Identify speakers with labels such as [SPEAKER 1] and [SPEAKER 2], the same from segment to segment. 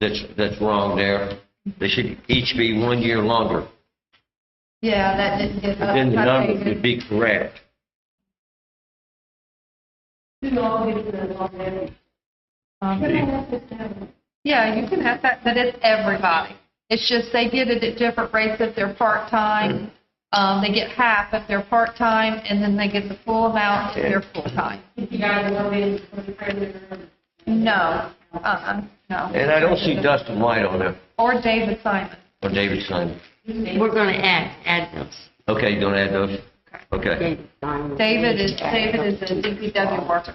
[SPEAKER 1] that's, that's wrong there. They should each be one year longer.
[SPEAKER 2] Yeah, that uh, didn't get. up.
[SPEAKER 1] Then the
[SPEAKER 2] I
[SPEAKER 1] number
[SPEAKER 2] think
[SPEAKER 1] would be correct.
[SPEAKER 2] um, Yeah, you can have that, but it's everybody. It's just they get it at different rates if they're part-time. Um, they get half if they're part-time, and then they get the full amount if they're full-time.
[SPEAKER 3] If you guys want me to put a president,
[SPEAKER 2] No, uh-uh, no.
[SPEAKER 1] And I don't see Dustin White on there,
[SPEAKER 2] Or David Simon.
[SPEAKER 1] or David Simon.
[SPEAKER 4] We're going to add, add those.
[SPEAKER 1] Okay, you don't add those? Okay.
[SPEAKER 4] David Simon.
[SPEAKER 2] David is, David is a DPW worker.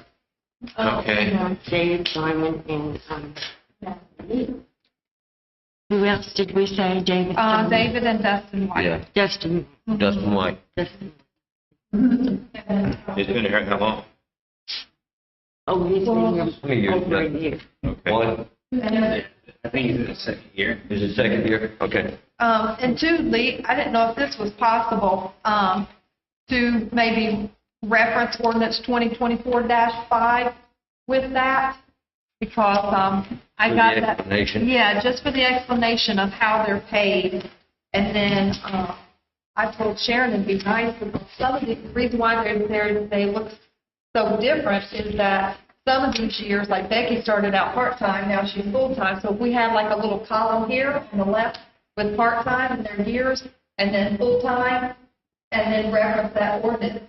[SPEAKER 1] Okay.
[SPEAKER 4] David Simon and, um, who else did we say? David?
[SPEAKER 2] Uh,
[SPEAKER 4] Simon?
[SPEAKER 2] David and Dustin White.
[SPEAKER 1] Yeah,
[SPEAKER 4] Dustin,
[SPEAKER 1] Dustin White.
[SPEAKER 4] Dustin.
[SPEAKER 5] It's been here how long?
[SPEAKER 4] Oh, he's been
[SPEAKER 1] Three
[SPEAKER 4] here
[SPEAKER 1] years,
[SPEAKER 4] over a
[SPEAKER 1] yeah.
[SPEAKER 4] year.
[SPEAKER 5] Okay.
[SPEAKER 1] One
[SPEAKER 5] I think it's in the second year.
[SPEAKER 1] is the second year? Okay.
[SPEAKER 2] Um, and two, Lee, I didn't know if this was possible, um, to maybe reference ordinance 2024-5 with that, because, um, I
[SPEAKER 1] For the
[SPEAKER 2] got that.
[SPEAKER 1] explanation.
[SPEAKER 2] Yeah, just for the explanation of how they're paid. And then, uh, I told Sharon it'd be nice, because some of the, the reason why they're there, they look so different is that some of these years, like Becky started out part-time, now she's full-time. So if we had like a little column here on the left with part-time and their years, and then full-time, and then reference that ordinance.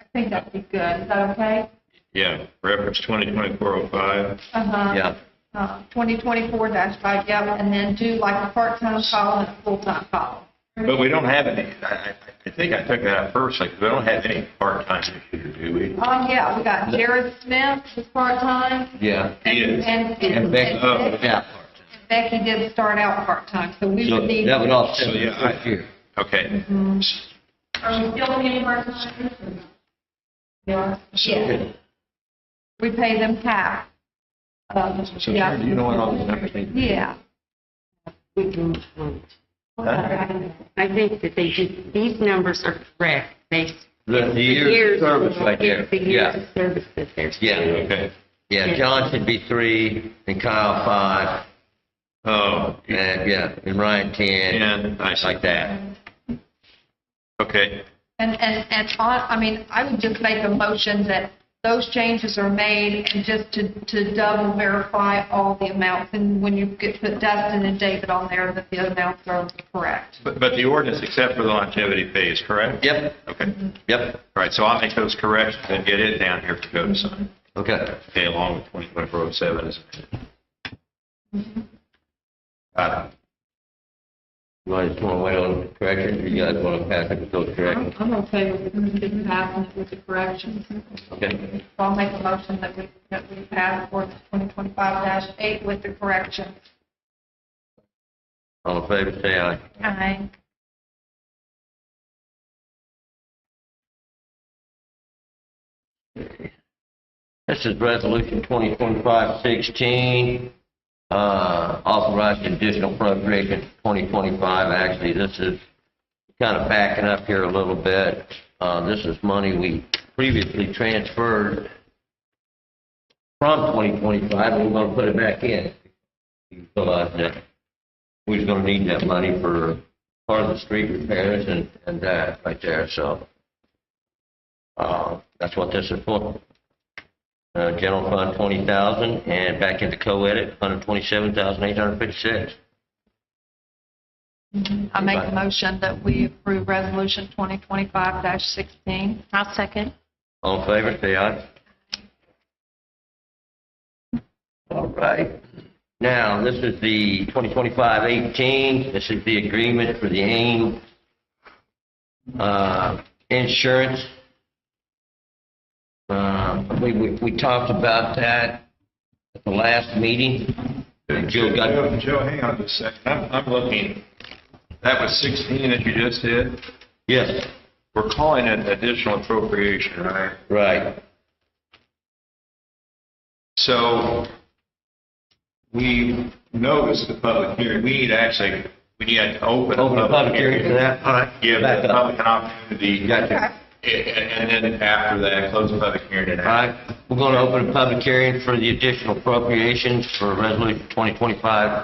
[SPEAKER 2] I think that'd be good. Is that okay?
[SPEAKER 5] Yeah, reference 202405.
[SPEAKER 2] Uh-huh.
[SPEAKER 1] Yeah.
[SPEAKER 2] Uh, 2024-5, yeah, and then do like a part-time column and a full-time column.
[SPEAKER 5] But we don't have any, I, I- I think I took that out first, like, we don't have any part-time this year, do we?
[SPEAKER 2] Oh, yeah, we got Jared Smith is part-time.
[SPEAKER 1] Yeah.
[SPEAKER 2] and-
[SPEAKER 5] He is.
[SPEAKER 2] And,
[SPEAKER 1] And
[SPEAKER 2] and
[SPEAKER 1] Becky-
[SPEAKER 5] Oh,
[SPEAKER 2] and
[SPEAKER 1] Yeah.
[SPEAKER 2] Becky did start out part-time, so we
[SPEAKER 1] So
[SPEAKER 2] would need. um,
[SPEAKER 1] that would offset
[SPEAKER 5] So,
[SPEAKER 1] the
[SPEAKER 5] yeah, I-
[SPEAKER 1] first year.
[SPEAKER 5] Okay.
[SPEAKER 3] are we still paying our president?
[SPEAKER 2] Yeah, yeah. We pay them half. Um,
[SPEAKER 5] So
[SPEAKER 2] yeah.
[SPEAKER 5] Sharon, do you know what all the numbers need to be?
[SPEAKER 2] Yeah.
[SPEAKER 4] We can, um,
[SPEAKER 5] Huh?
[SPEAKER 4] I think that they should, these numbers are correct based.
[SPEAKER 1] The the year of service right there.
[SPEAKER 4] The years
[SPEAKER 1] Yeah.
[SPEAKER 4] of service that they're.
[SPEAKER 1] Yeah,
[SPEAKER 4] stated.
[SPEAKER 5] Okay.
[SPEAKER 1] Yeah, John should be three, and Kyle five,
[SPEAKER 5] Oh,
[SPEAKER 1] and yeah, and Ryan 10,
[SPEAKER 5] yeah, I see.
[SPEAKER 1] like that.
[SPEAKER 5] Okay.
[SPEAKER 2] And, and, and on, I mean, I would just make a motion that those changes are made and just to, to double verify all the amounts. And when you get to put Dustin and David on there, that the amounts are correct.
[SPEAKER 5] But, but the ordinance except for the longevity pay is correct?
[SPEAKER 1] Yep,
[SPEAKER 5] Okay. All
[SPEAKER 1] yep,
[SPEAKER 5] right, so I'll make those corrections and get it down here for go to sign.
[SPEAKER 1] okay.
[SPEAKER 5] Okay, along with 202407 is. Got it.
[SPEAKER 1] You want to wait on the correction, or you guys want to pass it with those corrections?
[SPEAKER 2] I'm okay with it passing it with the corrections.
[SPEAKER 1] Okay,
[SPEAKER 2] So I'll make a motion that we, that we pass ordinance 2025-8 with the corrections.
[SPEAKER 1] all in favor, say aye.
[SPEAKER 2] Aye.
[SPEAKER 1] This is Resolution 2025-16, uh, authorizing additional appropriation for 2025. Actually, this is kind of backing up here a little bit. Uh, This is money we previously transferred from 2025, and we're going to put it back in. We realize that we're going to need that money for part of the street repairs and and that right there, so uh, that's what this is for. Uh, general fund, twenty thousand, and back into co-edit, hundred twenty-seven thousand, eight hundred fifty-six.
[SPEAKER 2] Mm-hmm. I make a motion that we approve resolution 2025-16. I'll second.
[SPEAKER 1] All in favor, say aye. All right. Now, this is the 2025-18. This is the agreement for the AIM uh, insurance. Uh, We we we talked about that at the last meeting. Jill got-
[SPEAKER 5] Joe, Joe, hang on just a second. I'm, I'm looking, that was 16 that you just did.
[SPEAKER 1] Yes.
[SPEAKER 5] We're calling it additional appropriation, right?
[SPEAKER 1] Right.
[SPEAKER 5] So we noticed the public hearing, we need actually, we need to open
[SPEAKER 1] Open
[SPEAKER 5] a
[SPEAKER 1] the public hearing for that, all right.
[SPEAKER 5] Give
[SPEAKER 1] Back
[SPEAKER 5] the
[SPEAKER 1] up.
[SPEAKER 5] public an opportunity.
[SPEAKER 1] Gotcha.
[SPEAKER 5] And and then after that, close the public hearing and
[SPEAKER 1] All right. We're going to open a public hearing for the additional appropriations for Resolution 2025